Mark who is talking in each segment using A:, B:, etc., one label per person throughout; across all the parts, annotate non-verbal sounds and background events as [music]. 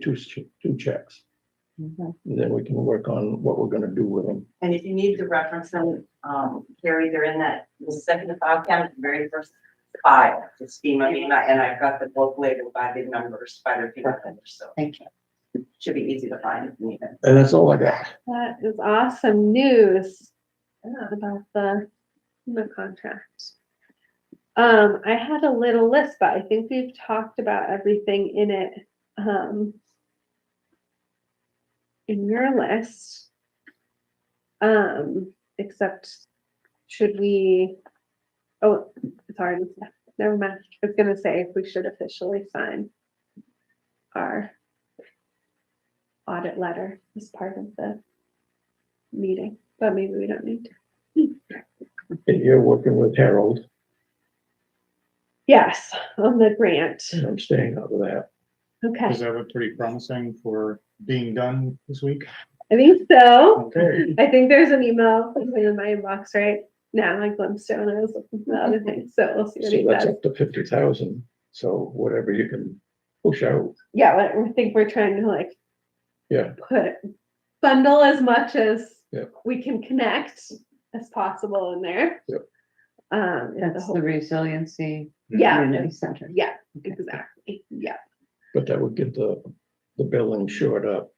A: two, che- two checks.
B: Mm-hmm.
C: Mhm.
A: Then we can work on what we're gonna do with them.
C: And if you need to reference them, um, Carrie, they're in that, the second to five count, the very first five, it's FEMA, MEMA, and I've got the book labeled by the numbers, by their FEMA numbers, so.
B: Thank you.
C: Should be easy to find if you need it.
A: And that's all I got.
D: That is awesome news about the FEMA contract. Um, I had a little list, but I think we've talked about everything in it. Um, in your list. Um, except should we, oh, it's already, never mind. I was gonna say if we should officially sign our audit letter as part of the meeting, but maybe we don't need to.
A: And you're working with Harold,
D: Yes, on the grant.
A: and I'm staying out of that.
D: Okay,
E: Is that look pretty promising for being done this week?
D: I think so.
E: Okay.
D: I think there's an email something in my inbox right now, like Glimstone, I was looking for the other thing, so we'll see what
A: So
D: he
A: that's
D: says.
A: up to fifty thousand, so whatever you can push out.
D: Yeah, but I think we're trying to like.
A: Yeah.
D: Put, bundle as much as
A: Yeah.
D: we can connect as possible in there.
A: Yep.
D: Um, yeah, the
B: That's the
D: whole,
B: resiliency.
D: Yeah.
B: Community center.
D: yeah,
B: Okay.
D: exactly, yeah,
A: But that would get the, the billing shored up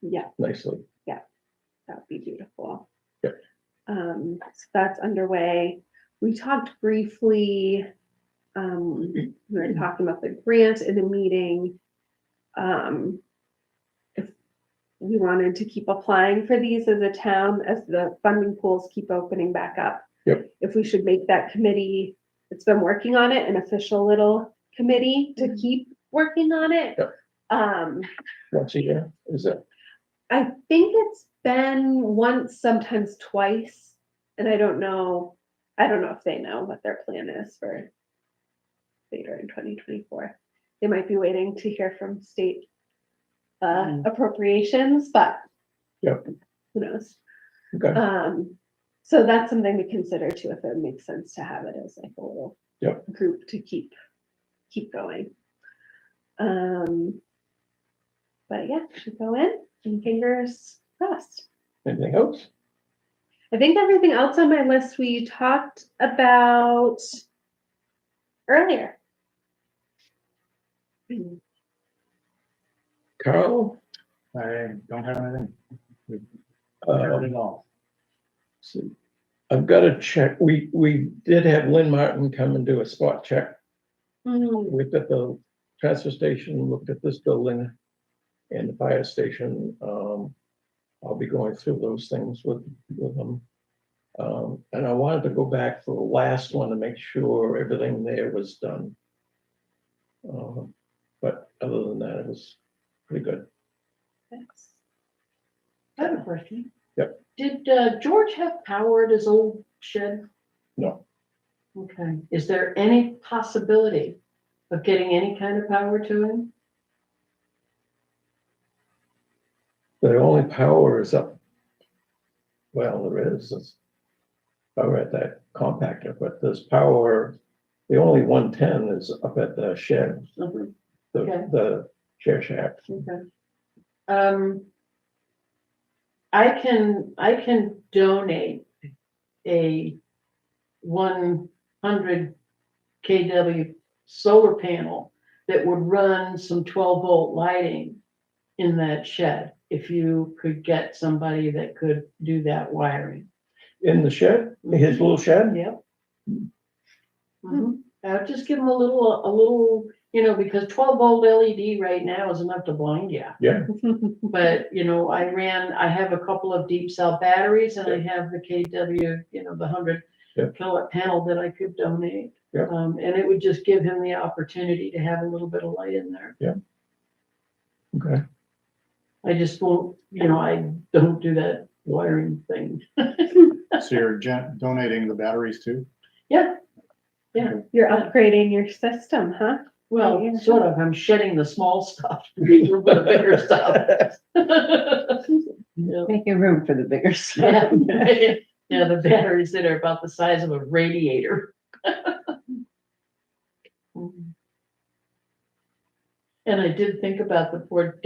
D: yeah,
A: nicely.
D: that'd be beautiful.
A: Yep.
D: Um, so that's underway. We talked briefly, um, we were talking about the grant in the meeting. Um, if we wanted to keep applying for these as a town, as the funding pools keep opening back up.
A: Yep.
D: If we should make that committee, it's been working on it, an official little committee to keep working on it.
A: Yep.
D: Um,
A: Once a year, is that,
D: I think it's been once, sometimes twice, and I don't know. I don't know if they know what their plan is for later in 2024. They might be waiting to hear from state uh,
B: Mm.
D: appropriations, but
A: Yep.
D: who knows?
A: okay,
D: Um, so that's something to consider too, if it makes sense to have it as like a little
A: Yep.
D: group to keep keep going. Um, but yeah, should go in and fingers crossed.
A: anything else?
D: I think everything else on my list we talked about earlier.
A: Carl?
E: I don't have anything.
A: uh,
E: Not at all.
A: see, I've got to check, we, we did have Lynn Martin come and do a spot check.
D: Mm,
A: Looked at the transfer station, looked at this building and the fire station. Um, I'll be going through those things with, with them. Um, and I wanted to go back for the last one to make sure everything there was done. Um, but other than that, it was pretty good.
D: thanks.
B: I have a question.
A: Yep.
B: Did uh, George have power at his old shed?
A: No,
B: Okay. Is there any possibility of getting any kind of power to him?
A: the only power is up. Well, there is, it's power at that compactor, but there's power, the only one ten is up at the shed,
B: Okay.
A: the,
B: Okay.
A: the share shack.
B: Um, I can, I can donate a one hundred KW solar panel that would run some twelve volt lighting in that shed, if you could get somebody that could do that wiring.
A: In the shed, his little shed?
B: Yep.
A: Mm-hmm.
B: Mhm. I'll just give them a little, a little, you know, because twelve volt LED right now is enough to blind you.
A: Yeah.
B: [laughs] But, you know, I ran, I have a couple of deep cell batteries and I have the KW, you know, the hundred
A: Yeah.
B: kilowatt panel that I could donate.
A: Yeah.
B: Um, and it would just give him the opportunity to have a little bit of light in there.
A: Okay,
B: I just won't, you know, I don't do that wiring thing.
E: So you're gen- donating the batteries too?
B: Yeah,
D: You're upgrading your system, huh?
B: well,
D: Yeah.
B: sort of, I'm shedding the small stuff, [laughs] for the bigger stuff. Yeah.
F: Making room for the
B: [laughs]
F: bigger stuff.
B: Yeah, yeah, the batteries that are about the size of a radiator. And I did think about the poor